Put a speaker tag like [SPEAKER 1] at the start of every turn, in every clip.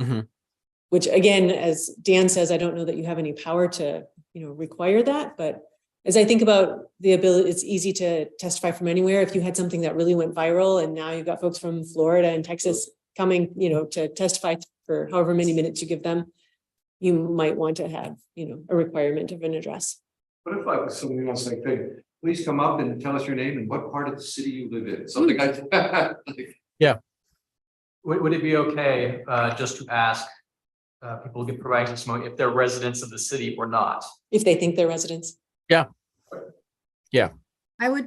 [SPEAKER 1] Mhm.
[SPEAKER 2] Which again, as Dan says, I don't know that you have any power to, you know, require that, but as I think about the ability, it's easy to testify from anywhere. If you had something that really went viral and now you've got folks from Florida and Texas coming, you know, to testify for however many minutes you give them, you might want to have, you know, a requirement of an address.
[SPEAKER 3] What if like somebody else like, hey, please come up and tell us your name and what part of the city you live in, something
[SPEAKER 2] Hmm.
[SPEAKER 3] like that.
[SPEAKER 4] Would, would it be okay, uh, just to ask, uh, people who give provide testimony if they're residents of the city or not?
[SPEAKER 2] if they think they're residents.
[SPEAKER 5] I would
[SPEAKER 2] Yeah.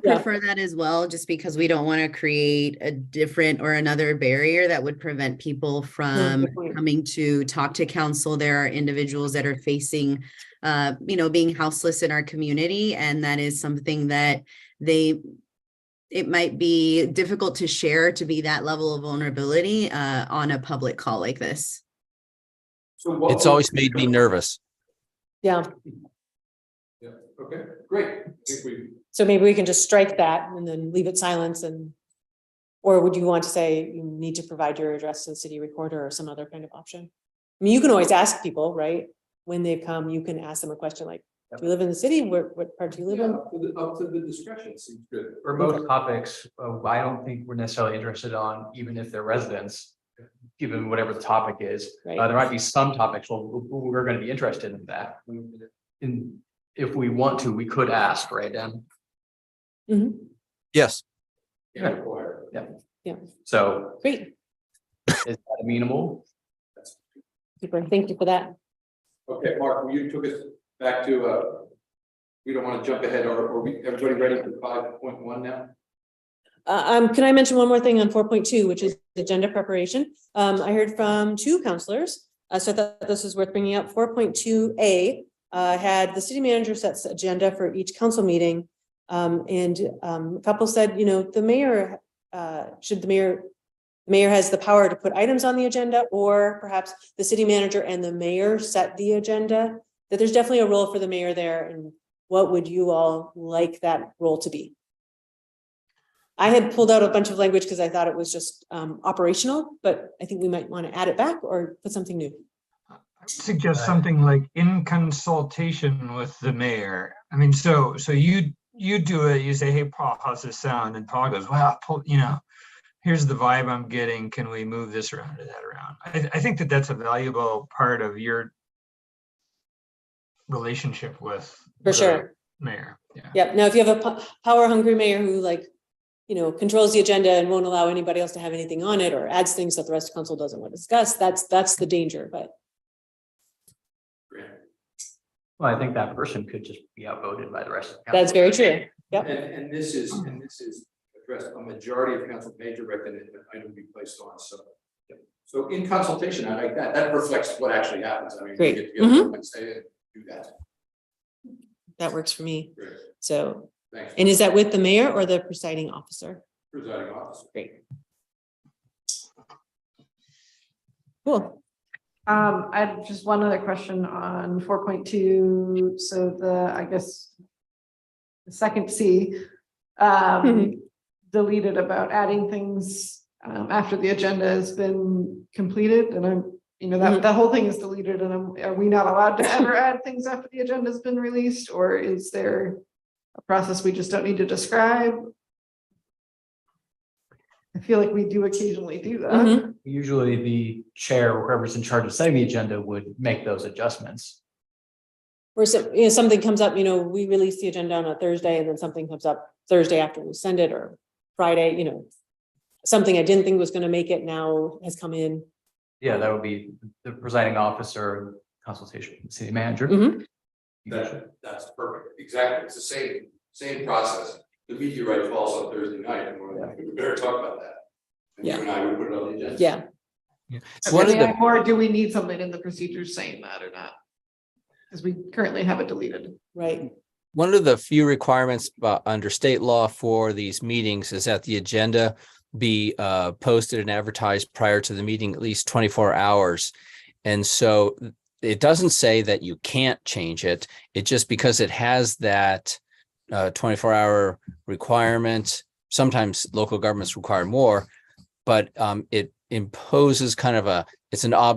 [SPEAKER 5] prefer that as well, just because we don't want to create a different or another barrier that would prevent people from
[SPEAKER 2] good point.
[SPEAKER 5] coming to talk to council. There are individuals that are facing, uh, you know, being houseless in our community, and that is something that they it might be difficult to share to be that level of vulnerability uh, on a public call like this.
[SPEAKER 3] So what-
[SPEAKER 1] It's always made me nervous.
[SPEAKER 2] Yeah,
[SPEAKER 3] Yeah, okay, great. I think we,
[SPEAKER 2] so maybe we can just strike that and then leave it silence and. Or would you want to say you need to provide your address to the city recorder or some other kind of option? I mean, you can always ask people, right? When they come, you can ask them a question like, do you live in the city? Where, what part do you live
[SPEAKER 3] yeah,
[SPEAKER 2] in?
[SPEAKER 3] up to the, up to the discretion seems good.
[SPEAKER 4] Remote topics, uh, I don't think we're necessarily interested on, even if they're residents, given whatever the topic is. Uh,
[SPEAKER 2] Right,
[SPEAKER 4] there might be some topics, well, w- w- we're gonna be interested in that. And if we want to, we could ask, right, Dan?
[SPEAKER 2] Mhm.
[SPEAKER 1] Yes,
[SPEAKER 3] Yeah, required.
[SPEAKER 4] So
[SPEAKER 2] great,
[SPEAKER 4] is that amenable?
[SPEAKER 2] super, thank you for that.
[SPEAKER 3] Okay, Mark, you took us back to, uh, we don't want to jump ahead, or, are we, everybody ready for five point one now?
[SPEAKER 2] Uh, um, can I mention one more thing on four point two, which is agenda preparation? Um, I heard from two counselors, uh, so I thought this was worth bringing up. Four point two A uh, had the city manager sets agenda for each council meeting. Um, and, um, a couple said, you know, the mayor, uh, should the mayor, mayor has the power to put items on the agenda, or perhaps the city manager and the mayor set the agenda. That there's definitely a role for the mayor there, and what would you all like that role to be? I had pulled out a bunch of language because I thought it was just um operational, but I think we might want to add it back or put something new.
[SPEAKER 6] suggest
[SPEAKER 4] Right.
[SPEAKER 6] something like in consultation with the mayor. I mean, so, so you, you do it, you say, hey, Paul, how's this sound? And Paul goes, well, Paul, you know, here's the vibe I'm getting. Can we move this around or that around? I, I think that that's a valuable part of your relationship with
[SPEAKER 2] For
[SPEAKER 6] the
[SPEAKER 2] sure.
[SPEAKER 6] Mayor, yeah.
[SPEAKER 2] Yep. Now, if you have a power hungry mayor who like, you know, controls the agenda and won't allow anybody else to have anything on it or adds things that the rest of council doesn't want to discuss, that's that's the danger, but
[SPEAKER 4] Well, I think that person could just be outvoted by the rest of the council.
[SPEAKER 2] that's very true. Yep.
[SPEAKER 3] And, and this is, and this is addressed, a majority of council major recommend that item be placed on, so. So in consultation, I like that, that reflects what actually happens, I mean. we
[SPEAKER 2] Great. Mm-hmm.
[SPEAKER 3] get together and say, eh, Do that,
[SPEAKER 2] That works for me.
[SPEAKER 3] great,
[SPEAKER 2] So,
[SPEAKER 3] thanks,
[SPEAKER 2] and is that with the mayor or the presiding officer?
[SPEAKER 3] presiding officer.
[SPEAKER 2] Great. Cool.
[SPEAKER 7] Um, I had just one other question on four point two, so the, I guess. The second C, um,
[SPEAKER 2] Mhm.
[SPEAKER 7] deleted about adding things, um, after the agenda has been completed and I'm. You know,
[SPEAKER 2] Mhm.
[SPEAKER 7] that, that whole thing is deleted and I'm- are we not allowed to ever add things after the agenda's been released or is there? A process we just don't need to describe? I feel like we do occasionally do that.
[SPEAKER 2] Mhm.
[SPEAKER 4] Usually the chair, or whoever's in charge of setting the agenda would make those adjustments.
[SPEAKER 2] Or so, you know, something comes up, you know, we release the agenda on a Thursday and then something comes up Thursday after we send it or Friday, you know. Something I didn't think was gonna make it now has come in.
[SPEAKER 4] Yeah, that would be the presiding officer consultation with the city manager.
[SPEAKER 2] Mhm.
[SPEAKER 3] That, that's perfect, exactly, it's the same, same process, the meteorite falls on Thursday night, and we're like, we better talk about that. And you
[SPEAKER 2] Yeah.
[SPEAKER 3] and I would put it on the agenda.
[SPEAKER 2] Yeah,
[SPEAKER 1] One of
[SPEAKER 7] Really,
[SPEAKER 1] the,
[SPEAKER 7] I- Or do we need something in the procedure saying that or not? Because we currently have it deleted.
[SPEAKER 2] right.
[SPEAKER 1] one of the few requirements uh, under state law for these meetings is that the agenda be uh, posted and advertised prior to the meeting at least 24 hours. And so it doesn't say that you can't change it. It just because it has that uh, 24 hour requirement. Sometimes local governments require more, but um, it imposes kind of a, it's an ob